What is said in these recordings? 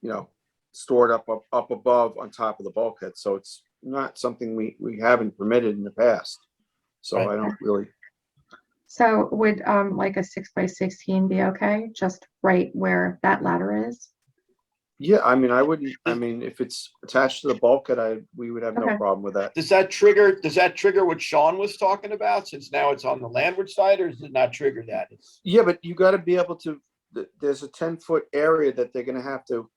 you know, stored up, up, up above on top of the bulkhead. So it's not something we, we haven't permitted in the past. So Right. I don't really, So would um like a six by sixteen be okay? Just right where that ladder is? yeah, I mean, I wouldn't, I mean, if it's attached to the bulkhead, I, we would have no Okay. problem with that. Does that trigger, does that trigger what Sean was talking about, since now it's on the landward side, or does it not trigger that? It's- Yeah, but you gotta be able to, th- there's a ten foot area that they're gonna have to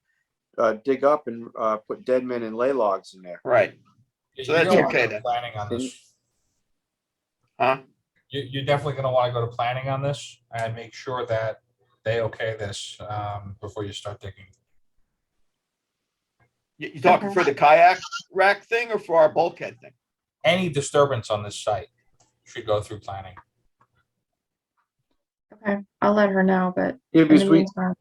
uh, dig up and, uh, put dead men and lay logs in there. Right, You- So you're that's gonna wanna okay go then. Planning on this. Huh? You, you're definitely gonna wanna go to planning on this and make sure that they okay this, um, before you start digging. you, you talking for the kayak rack thing or for our bulkhead thing? Any disturbance on this site should go through planning. Okay, I'll let her know, but Yeah, in the because we, meantime,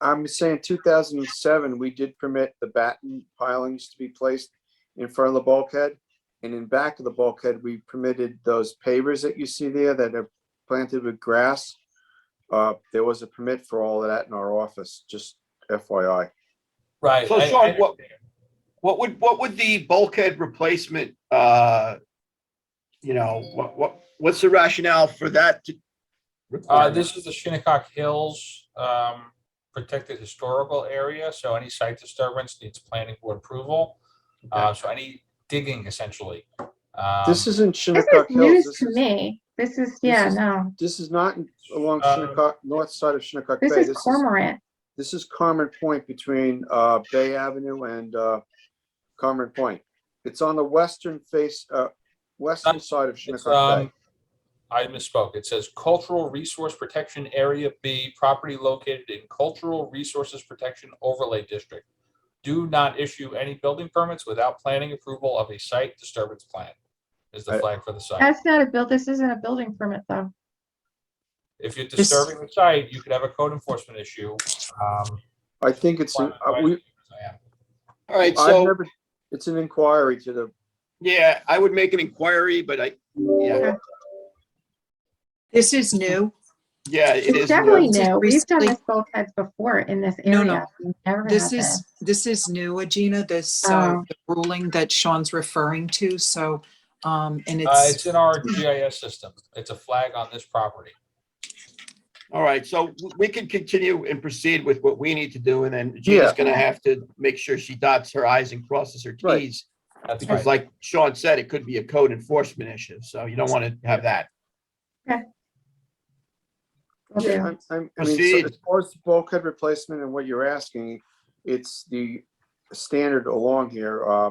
I'm saying two thousand and seven, we did permit the batten pilings to be placed in front of the bulkhead. And in back of the bulkhead, we permitted those pavers that you see there that are planted with grass. Uh, there was a permit for all of that in our office, just FYI. Right. So, I- I Sean, what- What would, what would the bulkhead replacement, uh, you know, what, what, what's the rationale for that? to- Uh, this is the Shinnecock Hills, um, protected historical area, so any site disturbance needs planning board approval. Uh, so any digging essentially. Um, This isn't this Shinnecock is Hills. news This to is, me. This is, yeah, is- no, this is not in- along Uh, Shinnecock, north side of Shinnecock Bay. this is Cormorant. This is Carmen Point between uh, Bay Avenue and uh, Carmen Point. It's on the western face, uh, western side of It's, Shinnecock Bay. um, I misspoke. It says Cultural Resource Protection Area B, property located in Cultural Resources Protection Overlay District. Do not issue any building permits without planning approval of a site disturbance plan is the I- flag for the site. That's not a build, this isn't a building permit though. If you're disturbing the site, you could have a code enforcement issue. um, I think it's, an- uh, we, I am. All right, I've uh, so, never, it's an inquiry to the, yeah, I would make an inquiry, but I, yeah, This is new. yeah, it It's is. definitely Just new. We've done recently- this bulkheads before in this No, no. area. We've never This had is, this is new, Agina, this uh, Oh. the ruling that Sean's referring to. So, um, and Uh, it's, it's in our GIS system. It's a flag on this property. All right, so w- we can continue and proceed with what we need to do, and then Gina's Yeah. gonna have to make sure she dots her i's and crosses her Right. t's. That's Because right. like Sean said, it could be a code enforcement issue, so you don't want to have that. Will do. yeah, I'm, I'm, I mean, Proceed. so as far as bulkhead replacement and what you're asking, it's the standard along here. Uh,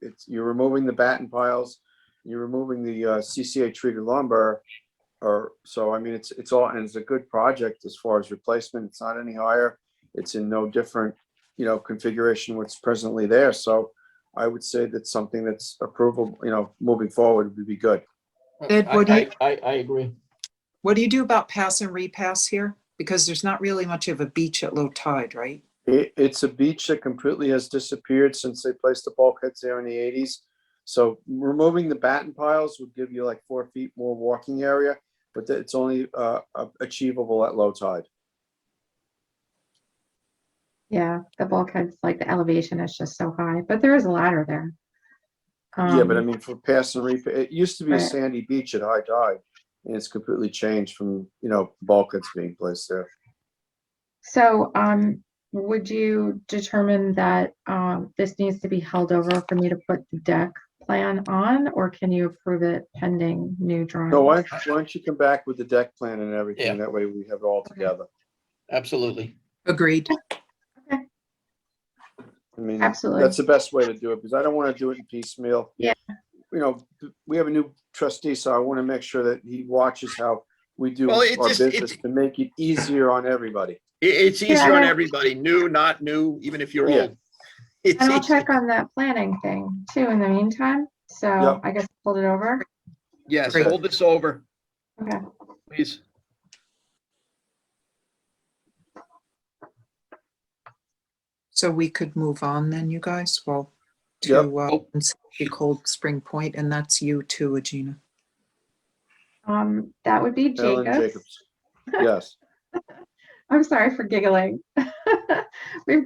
it's, you're removing the batten piles, you're removing the uh, CCA treated lumber. Or, so I mean, it's, it's all, and it's a good project as far as replacement. It's not any higher. It's in no different, you know, configuration what's presently there. So I would say that something that's approvable, you know, moving forward would be good. Ed, what do you- I, I, I agree. what do you do about pass and repass here? Because there's not really much of a beach at low tide, right? It, it's a beach that completely has disappeared since they placed the bulkheads there in the eighties. So removing the batten piles would give you like four feet more walking area, but that- it's only, uh, uh, achievable at low tide. Yeah, the bulkheads, like the elevation is just so high, but there is a ladder there. Yeah, but I Um, mean, for pass and repair, it used to be a Right. sandy beach at high tide. And it's completely changed from, you know, bulkheads being placed there. So, um, would you determine that, um, this needs to be held over for me to put the deck plan on, or can you approve it pending new drawings? No, why, why don't you come back with the deck plan and Yeah. everything? That way we have it all Okay. together. Absolutely. Agreed. I mean, Absolutely. that's the best way to do it because I don't want to do it in piecemeal. Yeah. You know, we have a new trustee, so I want to make sure that he watches how we do Well, our it just- it- business to make it easier on everybody. I- it's Yeah, easier I on know. everybody, new, not new, even if you're Yeah. old. It's And I'll easy. check on that planning thing too in the meantime, so Yep. I guess hold it over. Yes, Great. hold this over, Okay, please. So we could move on then, you guys, well, Yep. to, uh, Oh. Unsafety Cold Spring Point, and that's you too, Agina. um, that would be Ellen Jacobs. Jacobs. Yes. I'm sorry for giggling. We've